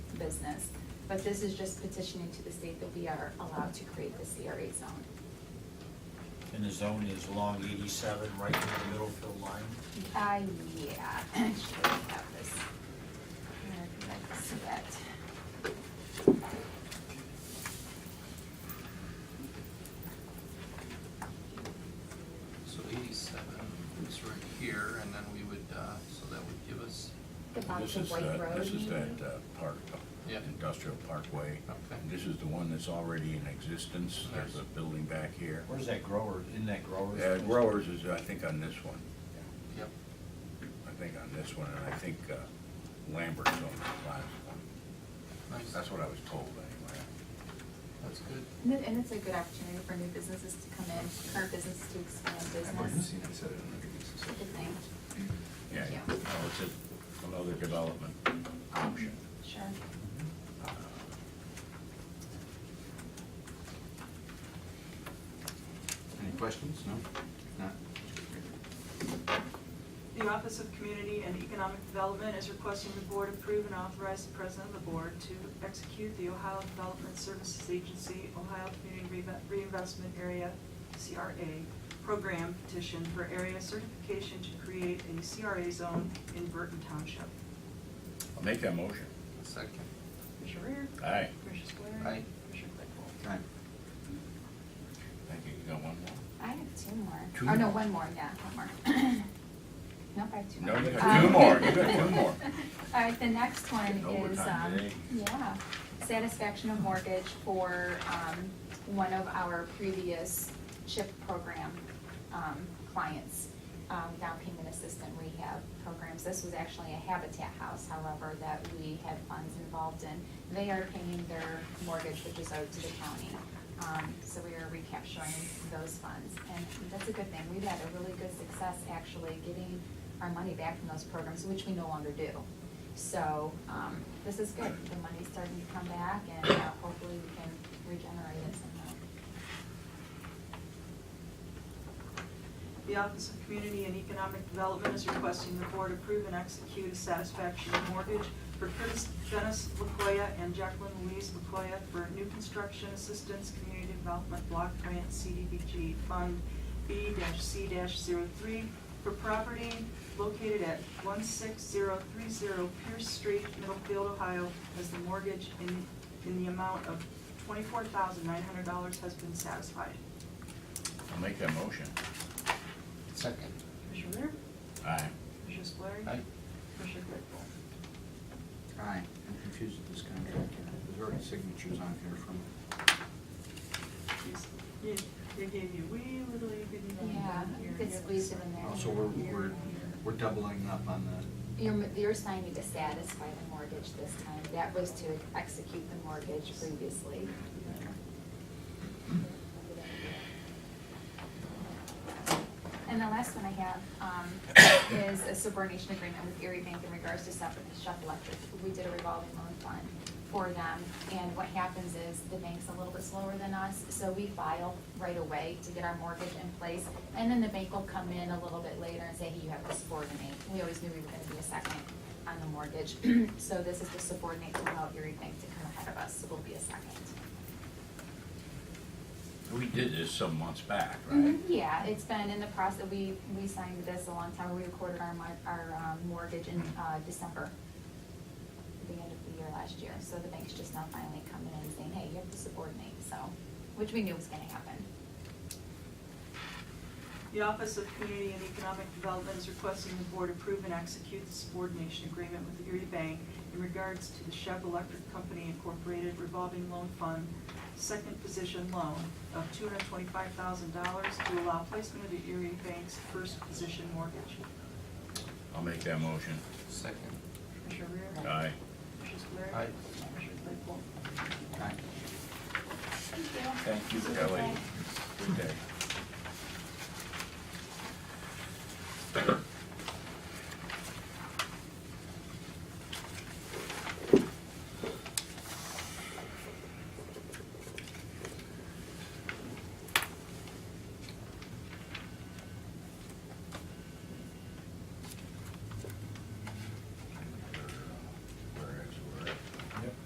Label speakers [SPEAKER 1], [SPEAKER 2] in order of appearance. [SPEAKER 1] business. But this is just petitioning to the state that we are allowed to create this CRA zone.
[SPEAKER 2] And the zone is long eighty-seven, right in the middle field line.
[SPEAKER 1] Uh, yeah, I should have this. Where did I see that?
[SPEAKER 3] So eighty-seven is right here, and then we would, uh, so that would give us,
[SPEAKER 1] The box
[SPEAKER 4] This
[SPEAKER 1] of
[SPEAKER 4] is,
[SPEAKER 1] white
[SPEAKER 4] uh,
[SPEAKER 1] road.
[SPEAKER 4] this is
[SPEAKER 1] you mean?
[SPEAKER 4] that uh, park, uh,
[SPEAKER 3] Yeah.
[SPEAKER 4] industrial parkway.
[SPEAKER 3] Okay.
[SPEAKER 4] And This is the one that's already in existence. There's a building back here.
[SPEAKER 2] Where's that grower, in that growers?
[SPEAKER 4] Uh, Growers is, I think, on this one.
[SPEAKER 3] yep,
[SPEAKER 4] I think on this one, and I think uh, Lambert's on the last one.
[SPEAKER 3] nice,
[SPEAKER 4] That's what I was told anyway.
[SPEAKER 3] that's good.
[SPEAKER 1] And it- And it's a good opportunity for new businesses to come in, current businesses to expand business.
[SPEAKER 5] I said it in the beginning, so-
[SPEAKER 1] Good thing.
[SPEAKER 4] Yeah,
[SPEAKER 1] Yeah.
[SPEAKER 4] no, it's a- another development option.
[SPEAKER 1] Sure.
[SPEAKER 4] Uh,
[SPEAKER 5] Any questions? No? Not?
[SPEAKER 6] The Office of Community and Economic Development is requesting the board approve and authorize the president of the board to execute the Ohio Development Services Agency, Ohio Community Reinve- Reinvestment Area, CRA, program petition for area certification to create a CRA zone in Burton Township.
[SPEAKER 4] I'll make that motion.
[SPEAKER 3] Second,
[SPEAKER 6] Commissioner Reer?
[SPEAKER 4] Aye.
[SPEAKER 6] Commissioner Spillier?
[SPEAKER 3] Aye.
[SPEAKER 6] Commissioner Claypool?
[SPEAKER 5] Aye.
[SPEAKER 4] Thank you. You got one more?
[SPEAKER 1] I have two more.
[SPEAKER 4] Two
[SPEAKER 1] Oh, no,
[SPEAKER 4] more.
[SPEAKER 1] one more, yeah, one more. Nope, I have two
[SPEAKER 4] No,
[SPEAKER 1] more.
[SPEAKER 4] you
[SPEAKER 1] Um,
[SPEAKER 4] got two more. You got two more.
[SPEAKER 1] All right, the next one is,
[SPEAKER 4] Overtime
[SPEAKER 1] um,
[SPEAKER 4] today.
[SPEAKER 1] yeah, satisfaction of mortgage for, um, one of our previous CHIP program, um, clients, um, down payment assistant rehab programs. This was actually a Habitat House, however, that we had funds involved in. They are paying their mortgage, which is owed to the county. Um, so we are recapturing those funds, and that's a good thing. We've had a really good success actually getting our money back from those programs, which we no longer do. So, um, this is good, the money's starting to come back and uh, hopefully we can regenerate it somehow.
[SPEAKER 6] The Office of Community and Economic Development is requesting the board approve and execute a satisfaction mortgage for Curtis Dennis Lacoya and Jacqueline Louise Lacoya for new construction assistance community development block grant CDBG Fund B-C-03 for property located at 16030 Pierce Street, Middlefield, Ohio, as the mortgage in, in the amount of $24,900 has been satisfied.
[SPEAKER 4] I'll make that motion.
[SPEAKER 3] second,
[SPEAKER 6] Commissioner Rea?
[SPEAKER 4] Aye.
[SPEAKER 6] Commissioner Spillier?
[SPEAKER 3] aye,
[SPEAKER 6] Commissioner Claypool?
[SPEAKER 5] Aye. I'm confused with this contract. There's already signatures on here from,
[SPEAKER 6] Jeez. You- They gave you wee little, you didn't even.
[SPEAKER 1] Yeah,
[SPEAKER 6] here.
[SPEAKER 1] it's squeezed in there.
[SPEAKER 5] also, we're, we're, we're doubling up on the,
[SPEAKER 1] You're, you're signing to satisfy the mortgage this time, that was to execute the mortgage previously. And the last one I have, um, is a subordination agreement with Erie Bank in regards to Shep Shep Electric. We did a revolving loan fund for them, and what happens is the bank's a little bit slower than us, so we file right away to get our mortgage in place. And then the bank will come in a little bit later and say, hey, you have to subordinate. We always knew we were gonna be a second on the mortgage. So this is to subordinate to allow Erie Bank to come ahead of us, so we'll be a second.
[SPEAKER 4] We did this some months back, right?
[SPEAKER 1] Mhm, Yeah, it's been in the process, we, we signed this a long time, ago. we recorded our, mo- our um, mortgage in uh, December, at the end of the year last year, so the bank's just now finally coming in and saying, hey, you have to subordinate, so, which we knew was gonna happen.
[SPEAKER 6] The Office of Community and Economic Development is requesting the board approve and execute the subordination agreement with Erie Bank in regards to the Chev Electric Company Incorporated revolving loan fund, second position loan of two hundred twenty-five thousand dollars to allow placement of the Erie Bank's first position mortgage.
[SPEAKER 4] I'll make that motion.
[SPEAKER 3] second,
[SPEAKER 6] Commissioner Rea?
[SPEAKER 4] Aye.
[SPEAKER 6] Commissioner Spillier?
[SPEAKER 3] Aye.
[SPEAKER 6] Commissioner Claypool?
[SPEAKER 5] aye.
[SPEAKER 1] Thank you.
[SPEAKER 4] Thank you, Kelly. Good day.